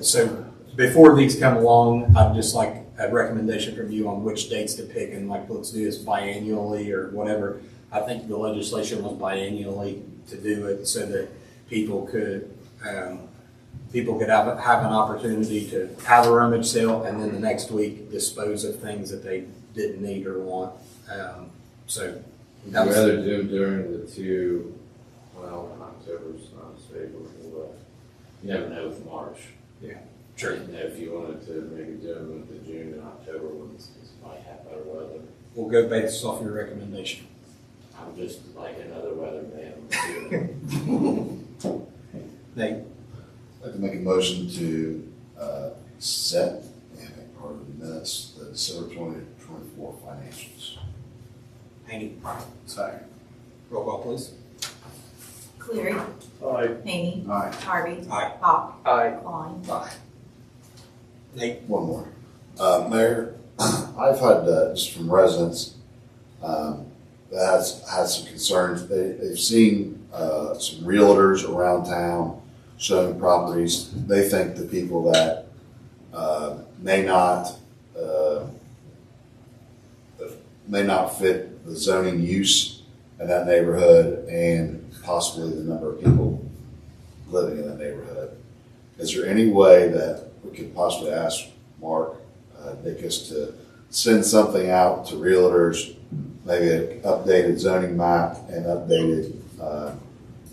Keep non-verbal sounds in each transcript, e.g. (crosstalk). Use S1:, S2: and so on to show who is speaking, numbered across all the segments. S1: So before these come along, I'd just like a recommendation from you on which dates to pick and like, let's do this biannually or whatever. I think the legislation was biannually to do it so that people could, um, people could have, have an opportunity to have a rummage sale and then the next week dispose of things that they didn't need or want. Um, So
S2: Would you
S1: That was-
S2: rather do them during the two, well, October's not as favorable, but you never know with March.
S1: Yeah.
S2: Sure. You know, if you wanted to maybe do them with the June and October ones, because you might have better weather.
S1: we'll go based off your recommendation.
S2: I'm just like another weatherman. (laughs)
S1: Nate?
S3: I'd like to make a motion to uh, set, yeah, part of the minutes, the December twenty twenty-four financials.
S1: Haney?
S3: Second.
S1: Roll call, please.
S4: Cleary.
S5: Aye.
S4: Hany.
S3: Aye.
S4: Harvey.
S1: Aye.
S4: Hawk.
S5: Aye.
S4: Klein.
S3: Aye.
S1: Nate?
S3: One more. Uh, Mayor, (clears throat) I've had, uh, just from residents, um, that has, had some concerns. They, they've seen, uh, some realtors around town showing properties. They think the people that, uh, may not, uh, may not fit the zoning use in that neighborhood and possibly the number of people living in that neighborhood. Is there any way that we could possibly ask Mark uh, Dickus to send something out to realtors, maybe an updated zoning map and updated uh,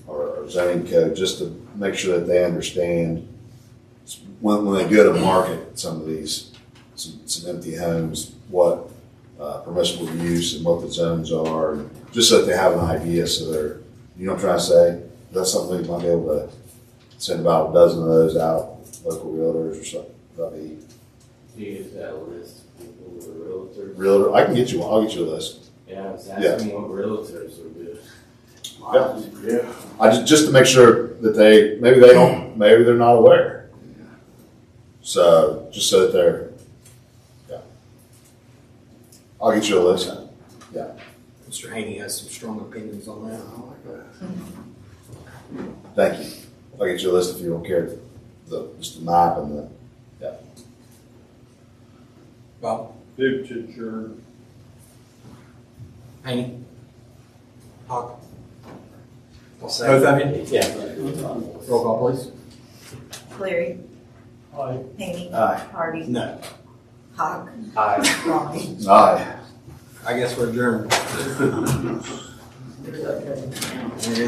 S3: or or zoning code, just to make sure that they understand when, when they go to market some of these, some, some empty homes, what uh, permissible use and what the zones are, and just so that they have an idea, so they're, you know what I'm trying to say? That's something we might be able to send about a dozen of those out, local realtors or something, that'd be,
S2: Do you get that list of people who are realtors?
S3: realtor, I can get you, one. I'll get you a list.
S2: Yeah, I was
S3: Yeah.
S2: asking what realtors would do.
S3: Yeah.
S5: Yeah.
S3: I just, just to make sure that they, maybe they don't, maybe they're not aware. So, just so that they're, yeah. I'll get you a list.
S1: Mr. Haney has some strong opinions on that.
S3: Thank you. I'll get you a list if you don't care, the, just the map and the,
S1: Bob?
S5: Move to adjourn.
S1: Haney? Hawk? Both of you? Roll call, please.
S4: Cleary.
S5: Aye.
S4: Hany.
S3: aye.
S4: Harvey.
S1: No.
S4: Hawk.
S1: Aye.
S4: Klein.
S3: Aye.
S1: I guess we're adjourned. I guess